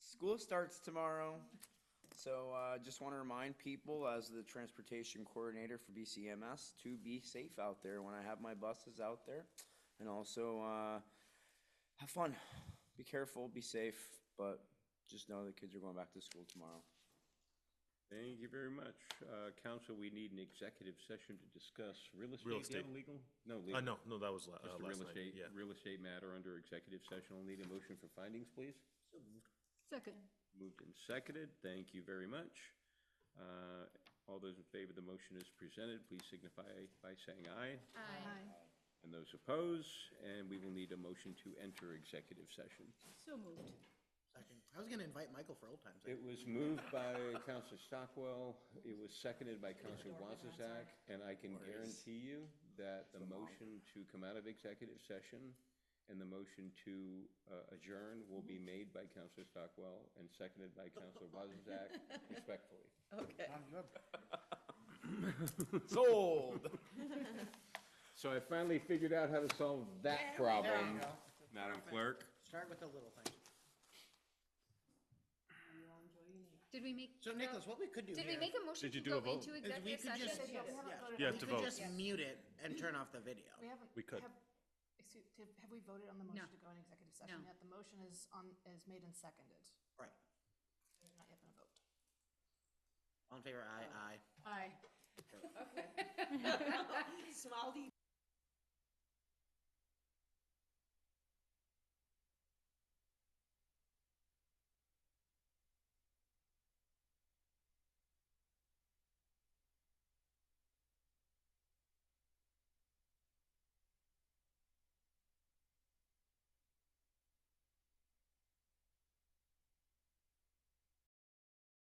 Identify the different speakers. Speaker 1: School starts tomorrow, so uh, just want to remind people, as the transportation coordinator for BCMS, to be safe out there when I have my buses out there. And also, uh, have fun, be careful, be safe, but just know the kids are going back to school tomorrow.
Speaker 2: Thank you very much. Uh, Council, we need an executive session to discuss real estate.
Speaker 3: Real
Speaker 2: Do you have Legal?
Speaker 3: estate.
Speaker 2: No,
Speaker 3: Uh,
Speaker 2: legal.
Speaker 3: no, no, that was la-
Speaker 2: Just a
Speaker 3: uh, last
Speaker 2: real
Speaker 3: night,
Speaker 2: estate,
Speaker 3: yeah.
Speaker 2: real estate matter under executive session. I'll need a motion for findings, please.
Speaker 4: Second.
Speaker 2: Moved and seconded. Thank you very much. Uh, All those in favor of the motion as presented, please signify by saying aye.
Speaker 4: Aye.
Speaker 2: And those opposed, and we will need a motion to enter executive session.
Speaker 4: So moved.
Speaker 5: Second. I was gonna invite Michael for old times. sake.
Speaker 2: It was moved by Counselor Stockwell, it was seconded by Counselor Wazzaq, and I can guarantee you that the motion to come out of executive session and the motion to uh, adjourn will be made by Counselor Stockwell and seconded by Counselor Wazzaq respectfully.
Speaker 6: Okay.
Speaker 1: Sold!
Speaker 2: So I finally figured out how to solve that problem, Madam Clerk.
Speaker 5: Start with the little things.
Speaker 7: Did we make,
Speaker 5: So Nicholas, what we could do
Speaker 7: did we
Speaker 5: here
Speaker 7: make a motion
Speaker 3: Did you
Speaker 7: to
Speaker 3: do
Speaker 7: go
Speaker 3: a vote?
Speaker 7: into
Speaker 5: is we
Speaker 7: executive
Speaker 5: could just,
Speaker 7: session?
Speaker 3: You
Speaker 5: yeah,
Speaker 3: have
Speaker 5: we
Speaker 3: to
Speaker 5: could
Speaker 3: vote.
Speaker 5: just mute it and turn off the video.
Speaker 8: We haven't.
Speaker 3: We could.
Speaker 8: have- Excuse, have have we voted on the motion to go in executive session
Speaker 7: No.
Speaker 8: yet? The motion is on, is made and seconded.
Speaker 5: Right.
Speaker 8: There's not yet been a vote.
Speaker 5: All in favor, aye, aye.
Speaker 8: Aye.
Speaker 6: Smiley